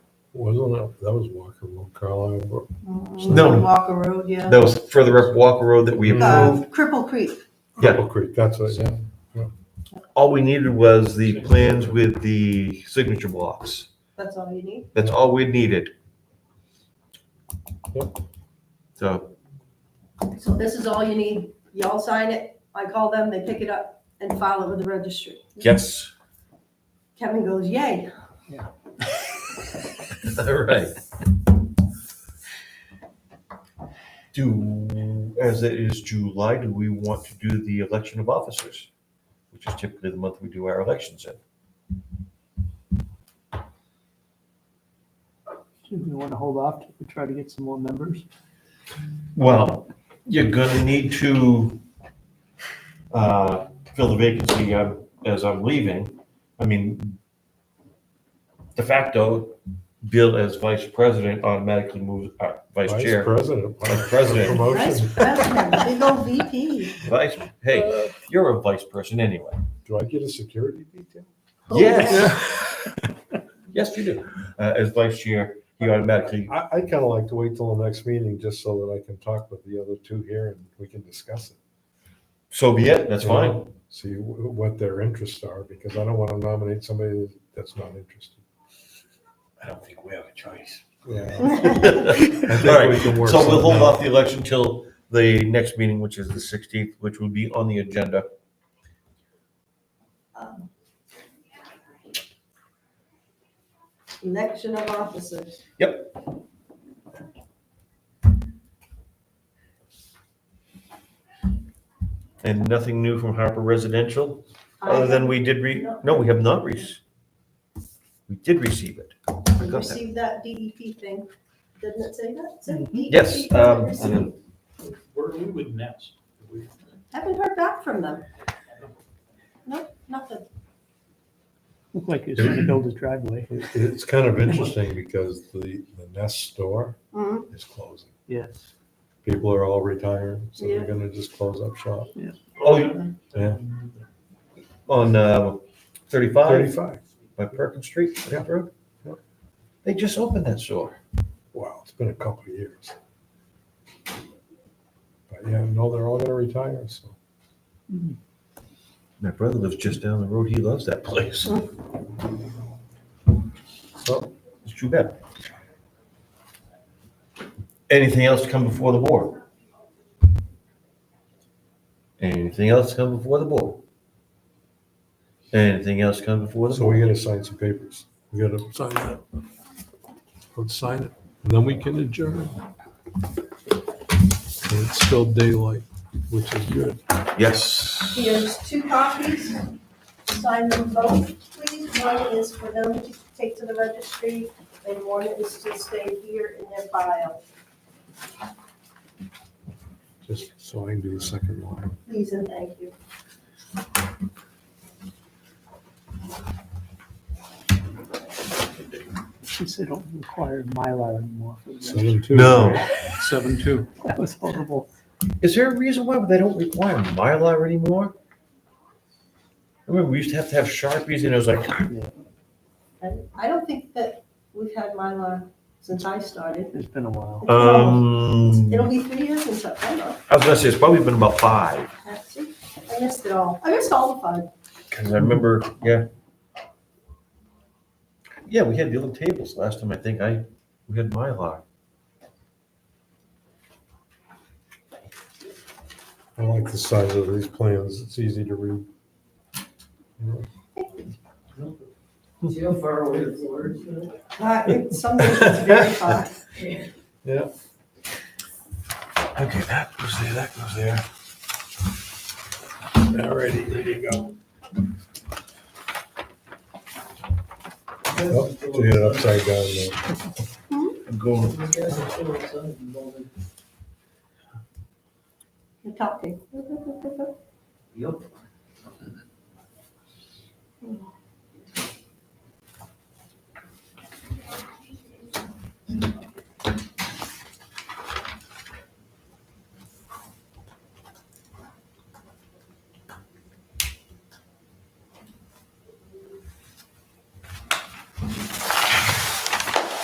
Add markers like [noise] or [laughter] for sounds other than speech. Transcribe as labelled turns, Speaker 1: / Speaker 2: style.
Speaker 1: Wasn't that, that was Walker Road, Carlisle Road?
Speaker 2: No.
Speaker 3: Walker Road, yeah.
Speaker 2: That was further up Walker Road that we
Speaker 3: Uh,
Speaker 2: approved.
Speaker 3: Cripple Creek,
Speaker 2: Yeah.
Speaker 1: Cripple Creek, that's it, yeah.
Speaker 2: All we needed was the plans with the signature blocks.
Speaker 3: that's all you need.
Speaker 2: That's all we needed.
Speaker 1: Yep.
Speaker 2: So, [laughs]
Speaker 3: So this is all you need. Y'all sign it. I call them, they pick it up and file it with the registry.
Speaker 2: yes.
Speaker 3: Kevin goes, yay.
Speaker 2: All right. Do, as it is July, do we want to do the election of officers? Which is typically the month we do our elections in.
Speaker 4: Do we want to hold off to try to get some more members?
Speaker 2: Well, you're gonna need to uh, fill the vacancy uh, as I'm leaving. I mean, de facto, Bill as vice president automatically moves, uh, vice chair,
Speaker 1: President. wow,
Speaker 2: Vice president.
Speaker 1: Promotion.
Speaker 3: Vice President, [laughs] big old VP.
Speaker 2: vice, hey,
Speaker 1: Uh,
Speaker 2: you're a vice person anyway.
Speaker 1: Do I get a security detail?
Speaker 3: Oh,
Speaker 2: [laughs] Yes, you do. Uh, As vice chair, he automatically,
Speaker 1: I, I kind of like to wait till the next meeting just so that I can talk with the other two here and we can discuss it.
Speaker 2: so be it, that's
Speaker 1: You [laughs] know,
Speaker 2: fine.
Speaker 1: See wh- what their interests are because I don't want to nominate somebody that's not interested.
Speaker 5: I don't think we have a choice.
Speaker 1: Yeah.
Speaker 3: yeah.
Speaker 1: [laughs] I
Speaker 2: All
Speaker 1: think
Speaker 2: right.
Speaker 1: we can work
Speaker 2: So we'll
Speaker 1: something
Speaker 2: hold
Speaker 1: out.
Speaker 2: off the election till the next meeting, which is the 16th, which will be on the agenda.
Speaker 3: [laughs] Um, Election of officers.
Speaker 2: And nothing new from Harper Residential? Other than we did re, no, we have not re, we did receive it.
Speaker 3: I
Speaker 2: got that.
Speaker 3: received that DEP thing. Didn't it say that? It said
Speaker 2: Yes,
Speaker 3: DEP
Speaker 2: um,
Speaker 3: received.
Speaker 2: and then-
Speaker 5: Where are we with Nest? We-
Speaker 3: Haven't heard back from them. Nope, nothing.
Speaker 4: Looked like he was going to build a driveway.
Speaker 1: It- It's kind of interesting because the, the Nest store
Speaker 3: Mhm.
Speaker 1: is closing.
Speaker 4: Yes.
Speaker 1: People are all retiring, so they're
Speaker 3: Yeah.
Speaker 1: gonna just close up shop.
Speaker 2: Oh, you-
Speaker 1: Yeah.
Speaker 2: on, uh, thirty-five
Speaker 1: Thirty-five.
Speaker 2: by Perkins Street,
Speaker 1: Yeah.
Speaker 2: that road?
Speaker 1: Yeah.
Speaker 2: They just opened that store.
Speaker 1: Wow, it's been a couple of years. But yeah, no, they're all gonna retire, so.
Speaker 2: My brother lives just down the road. He loves that place.
Speaker 1: So,
Speaker 2: It's too bad. Anything else to come before the board? Anything else to come before the board? Anything else come before the
Speaker 1: so we
Speaker 2: board?
Speaker 1: gotta sign some papers. We gotta sign that. Let's sign it, and then we can adjourn. And it's still daylight, which is good.
Speaker 2: Yes.
Speaker 3: Here's two copies. Sign them both, please. One is for them to take to the registry and one is to stay here in their file.
Speaker 1: Just so I can do the second line.
Speaker 3: Please and thank you.
Speaker 4: Since they don't require Mylar anymore. for the-
Speaker 1: Seven two.
Speaker 5: Seven two.
Speaker 4: [laughs] That was horrible.
Speaker 2: Is there a reason why they don't require Mylar anymore? I remember we used to have to have Sharpies and it was like,
Speaker 3: And I don't think that we've had Mylar since I started.
Speaker 4: It's been a while.
Speaker 2: um,
Speaker 3: It'll be three years in September.
Speaker 2: I was gonna say, it's probably been about five,
Speaker 3: Patsy, I missed it all. I missed all the fun. [laughs]
Speaker 2: because I remember, yeah. Yeah, we had the little tables last time, I think I, we had Mylar.
Speaker 1: I like the size of these plans. It's easy to read.
Speaker 6: See how far away the words are?
Speaker 3: Uh, it- Some days it's very fun.
Speaker 2: Okay, that goes there, that goes there.
Speaker 1: Alrighty, there you go. Oh, So you had it upside down there.
Speaker 2: I'm going,
Speaker 6: These guys are still outside and building.
Speaker 3: You're [laughs] talking.
Speaker 6: Yep.